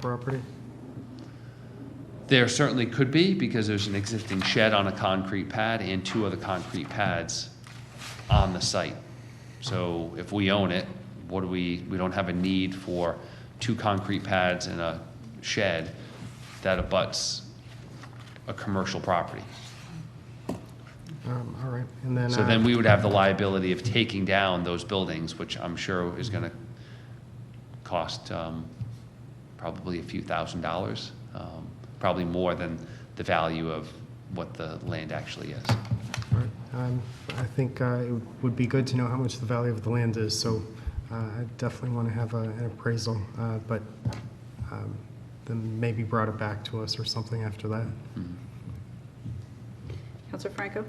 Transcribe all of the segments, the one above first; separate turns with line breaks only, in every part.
property?
There certainly could be, because there's an existing shed on a concrete pad and two other concrete pads on the site. So if we own it, what do we, we don't have a need for two concrete pads and a shed that abuts a commercial property.
Um, All right, and then.
So
uh,
then we would have the liability of taking down those buildings, which I'm sure is gonna cost um, probably a few thousand dollars, um, probably more than the value of what the land actually is.
all right, um, I think uh, it would be good to know how much the value of the land is, so uh, I definitely want to have a- an appraisal, uh, but um, then maybe brought it back to us or something after that.
Counselor Franco?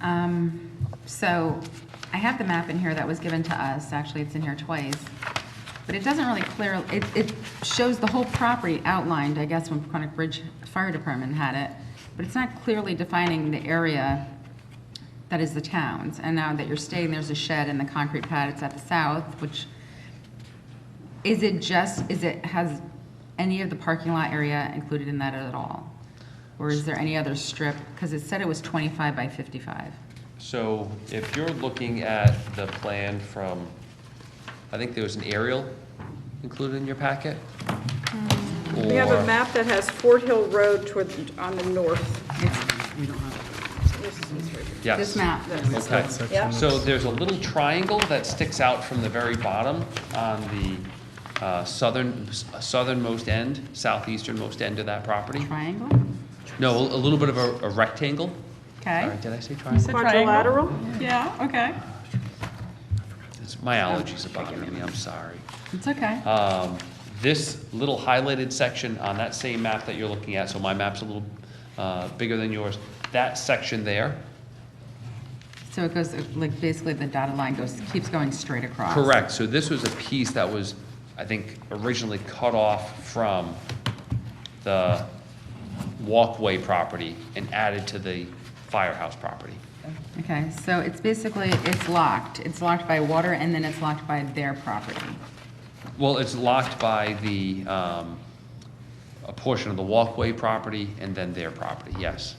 Um, So I have the map in here that was given to us, actually, it's in here twice, but it doesn't really clear, it, it shows the whole property outlined, I guess, when Paquonic Bridge Fire Department had it, but it's not clearly defining the area that is the town's. And now that you're staying, there's a shed and the concrete pad, it's at the south, which, is it just, is it, has any of the parking lot area included in that at all? Or is there any other strip? Because it said it was 25 by 55.
So if you're looking at the plan from, I think there was an aerial included in your packet?
Mm, We have a
Or-
map that has Fort Hill Road toward, on the north.
It's, we don't have
So this is this right here.
Yes.
this map.
That's-
Okay.
Yeah.
So there's a little triangle that sticks out from the very bottom on the uh, southern, southernmost end, southeasternmost end of that property.
Triangle?
No, a little bit of a a rectangle. Sorry,
Okay.
Did I say triangle?
Quadrilateral?
Yeah, okay.
It's- My allergies are bothering me, I'm sorry.
It's okay.
Um, This little highlighted section on that same map that you're looking at, so my map's a little uh, bigger than yours, that section there,
So it goes, like, basically the dotted line goes, keeps going straight across.
Correct, so this was a piece that was, I think, originally cut off from the walkway property and added to the firehouse property.
Okay, so it's basically, it's locked. It's locked by water and then it's locked by their property.
Well, it's locked by the, um, a portion of the walkway property and then their property, yes,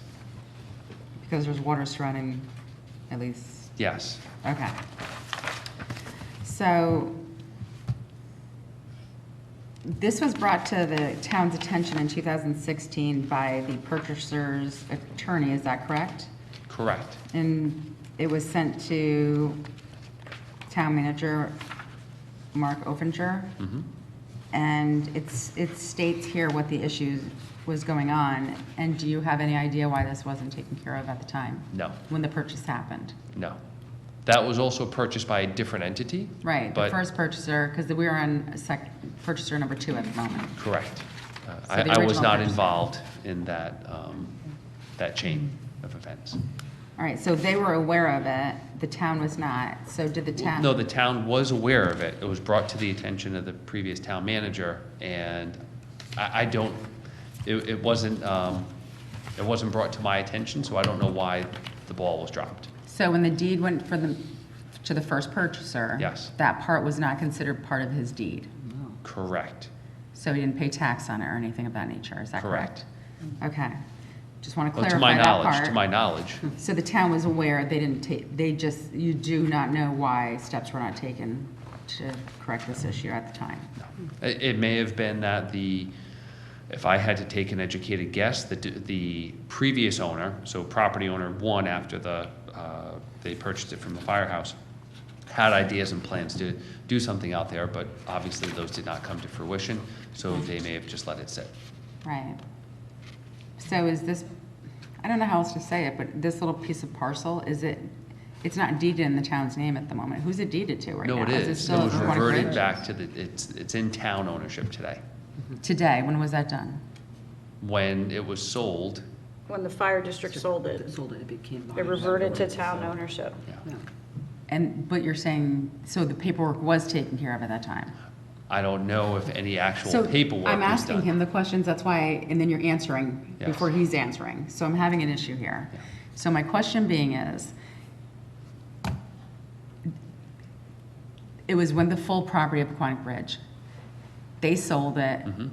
Because there's water surrounding at least
yes.
Okay. So this was brought to the town's attention in 2016 by the purchaser's attorney, is that correct?
Correct,
And it was sent to town manager Mark Ofinger?
Hmm. Mm-hmm.
And it's, it states here what the issue was going on, and do you have any idea why this wasn't taken care of at the time?
No.
When the purchase happened?
no. That was also purchased by a different entity?
Right, the
but-
first purchaser, because we are on sec, purchaser number two at the moment.
Correct. Uh,
So the
I, I was
original
not
purchase.
involved in that, um, that chain of events.
All right, so they were aware of it, the town was not, so did the town?
No, the town was aware of it. It was brought to the attention of the previous town manager, and I, I don't, it, it wasn't, um, it wasn't brought to my attention, so I don't know why the ball was dropped.
So when the deed went for the, to the first purchaser?
Yes.
That part was not considered part of his deed,
Oh. Correct.
so he didn't pay tax on it or anything of that nature, is that correct? Okay, just want to
Well,
clarify
To my
that part. Hmm.
knowledge, to my knowledge,
So the town was aware, they didn't take, they just, you do not know why steps were not taken to correct this issue at the time?
it, it may have been that the, if I had to take an educated guess, the, the previous owner, so property owner one after the, uh, they purchased it from the firehouse, had ideas and plans to do something out there, but obviously those did not come to fruition, so they may have just let it sit.
Right. So is this, I don't know how else to say it, but this little piece of parcel, is it, it's not deeded in the town's name at the moment. Who's it deeded to right now?
No, it is. It
still
was
in Quantic
reverted
Bridge?
back to the, it's, it's in town ownership today.
Today, when was that done?
When it was sold,
When the fire district sold it,
Sold it, it became.
they reverted to town ownership.
Yeah.
And, but you're saying, so the paperwork was taken care of at that time?
I don't know if any actual
So
paperwork was done.
I'm asking him the questions, that's why, and then you're answering
Yes.
before he's answering. So I'm having an issue here.
Yeah.
So my question being is,
Mm-hmm.
it was when the full property of Quonic Bridge, they sold it,